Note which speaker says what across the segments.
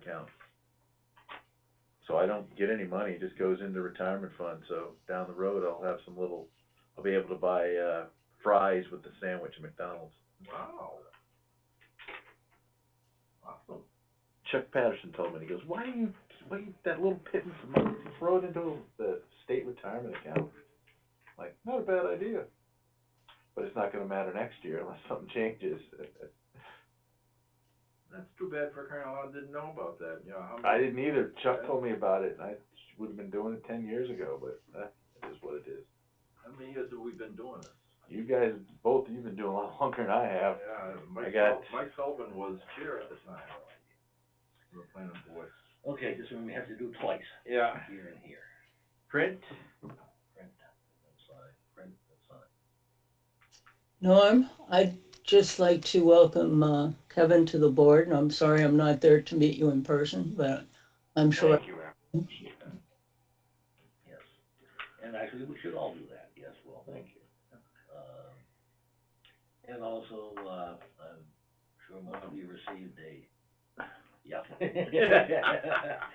Speaker 1: account. So I don't get any money, it just goes into retirement fund, so down the road, I'll have some little, I'll be able to buy, uh, fries with the sandwich at McDonald's.
Speaker 2: Wow. Awesome.
Speaker 1: Chuck Patterson told me, he goes, why do you, why you, that little pittance of money, you throw it into the state retirement account? Like, not a bad idea, but it's not gonna matter next year unless something changes.
Speaker 2: That's too bad for crying out loud, didn't know about that, you know, how
Speaker 1: I
Speaker 2: many,
Speaker 1: didn't either, Chuck told me about it, and I would've been doing it ten years ago, but, eh, it is what it is.
Speaker 2: how many years have we been doing this?
Speaker 1: You guys, both of you have been doing a lot longer than I have.
Speaker 2: Yeah, Mike
Speaker 1: Uh, got-
Speaker 2: Sul- Mike Sullivan was chair at the time. We were planning board.
Speaker 3: Okay, this one we have to do twice,
Speaker 2: Yeah.
Speaker 3: here and here,
Speaker 2: Print?
Speaker 3: print, and then sign, print, and sign.
Speaker 4: Norm, I'd just like to welcome uh, Kevin to the board, and I'm sorry I'm not there to meet you in person, but I'm sure.
Speaker 3: Thank you, Al. Yes, and actually, we should all do that, yes, well, thank you. Um, And also, uh, I'm sure most of you received a, yeah.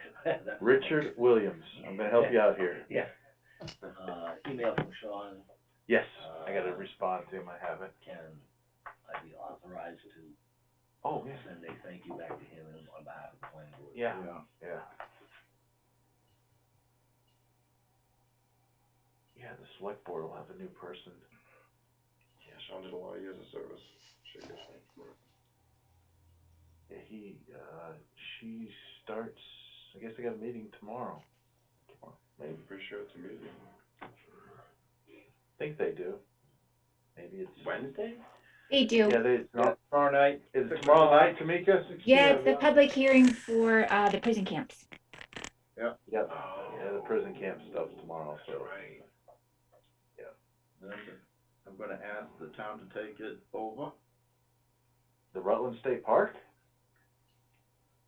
Speaker 3: That-
Speaker 1: Richard Williams, I'm gonna help you out here.
Speaker 3: Yeah. Uh, email from Sean,
Speaker 1: Yes, I gotta respond to him, I haven't.
Speaker 3: can I be authorized to
Speaker 1: Oh, yeah,
Speaker 3: send a thank you back to him on behalf of the planning board?
Speaker 1: yeah,
Speaker 2: Yeah.
Speaker 1: yeah. Yeah, the select board will have a new person.
Speaker 5: Yeah, Sean did a lot of years of service. Should get some.
Speaker 1: Yeah, he, uh, she starts, I guess they got a meeting tomorrow. Maybe,
Speaker 5: I'm pretty sure it's a meeting.
Speaker 1: think they do. Maybe it's.
Speaker 2: Wednesday?
Speaker 6: They do.
Speaker 1: Yeah, they, no, tomorrow night, is it tomorrow night, Tamika?
Speaker 6: Yeah, it's the public hearing for, uh, the prison camps.
Speaker 1: Yep, yeah, the prison camp stuff's tomorrow,
Speaker 2: That's
Speaker 1: so.
Speaker 2: right.
Speaker 1: Yeah.
Speaker 2: Then I'm gonna ask the town to take it over,
Speaker 1: The Rutland State Park?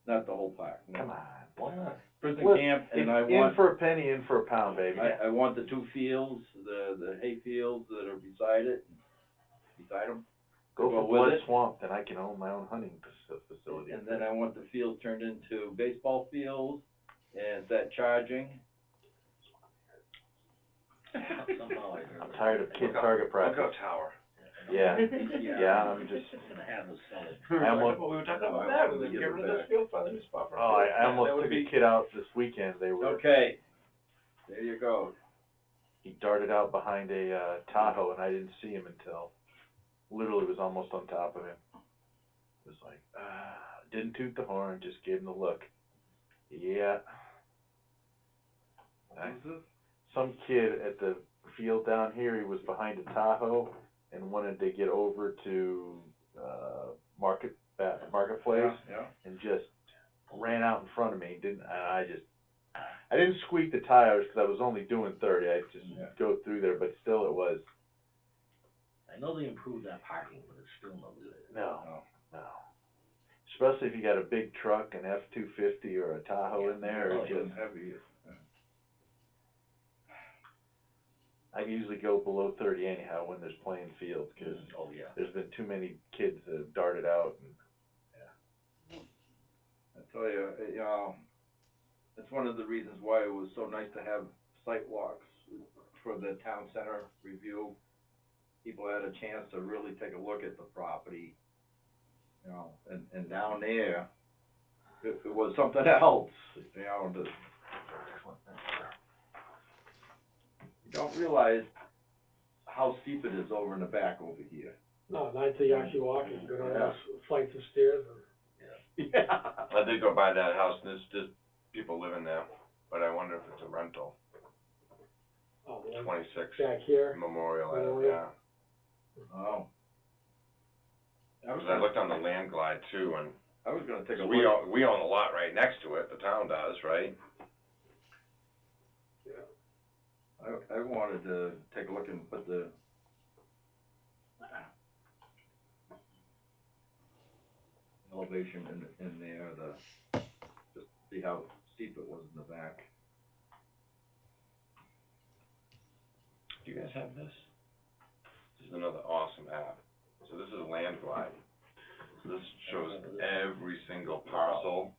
Speaker 2: not the whole park,
Speaker 1: Come
Speaker 2: no.
Speaker 1: on.
Speaker 3: Why not?
Speaker 2: Prison
Speaker 1: Well,
Speaker 2: camp, Mm. and
Speaker 1: In-
Speaker 2: I
Speaker 1: In
Speaker 2: want,
Speaker 1: for a penny, in for a pound, baby.
Speaker 2: I, I want the two fields, the, the hay fields that are beside it, beside them.
Speaker 1: Go
Speaker 2: Well,
Speaker 1: for
Speaker 2: with
Speaker 1: Blood
Speaker 2: it-
Speaker 1: Swamp, then I can own my own hunting faci- facility.
Speaker 2: And then I want the field turned into baseball fields, and is that charging?
Speaker 3: Somehow I heard.
Speaker 1: I'm tired of kid
Speaker 5: Look up-
Speaker 1: target practice.
Speaker 5: Lookout Tower.
Speaker 1: Yeah, yeah,
Speaker 3: Yeah.
Speaker 1: I'm just,
Speaker 3: Just gonna have us sell it.
Speaker 1: I almost,
Speaker 5: we were
Speaker 2: talking about that, we were getting rid of this
Speaker 5: field, finding a new spot
Speaker 1: oh, I I almost took a kid out this weekend. They were,
Speaker 2: Okay, there you go.
Speaker 1: he darted out behind a, uh, Tahoe and I didn't see him until, literally was almost on top of him. It was like, ah, didn't toot the horn, just gave him the look. Yeah. I- some kid at the field down here, he was behind a Tahoe and wanted to get over to uh, market uh, marketplace
Speaker 2: Yeah,
Speaker 1: and just ran out in front of me. Didn't and I just I didn't squeak the tires because I was only doing thirty. I just
Speaker 2: Yeah.
Speaker 1: go through there, but still it was
Speaker 3: I know they improved that parking, but it's still no good.
Speaker 1: no,
Speaker 2: No.
Speaker 1: no. Especially if you got a big truck, an F two fifty or a Tahoe in there,
Speaker 3: Oh,
Speaker 1: it just
Speaker 2: heavy.
Speaker 1: I usually go below thirty anyhow when there's playing fields because
Speaker 3: Oh, yeah.
Speaker 1: there's been too many kids that have darted out and
Speaker 2: I tell you, it, um, it's one of the reasons why it was so nice to have site walks for the town center review. People had a chance to really take a look at the property, you know, and, and down there, it, it was something else, you know, the. You don't realize how steep it is over in the back over here.
Speaker 7: No, not until you actually walk and go down those flights of stairs or.
Speaker 2: Yeah.
Speaker 5: I did go by that house, and there's just people living there, but I wonder if it's a rental,
Speaker 7: Oh, the one
Speaker 5: twenty-six
Speaker 7: Back here,
Speaker 5: Memorial, I
Speaker 7: Memorial.
Speaker 5: yeah.
Speaker 2: Oh. I was
Speaker 5: Cause I
Speaker 2: gonna,
Speaker 5: looked on the land glide too, and,
Speaker 2: I was gonna take a
Speaker 5: so
Speaker 2: look.
Speaker 5: we own, we own a lot right next to it, the town does, right?
Speaker 2: I, I wanted to take a look and put the. Elevation in, in there, the, just see how steep it was in the back.
Speaker 5: Do you guys have this? This is another awesome app. So this is Land Glide. So this shows every single parcel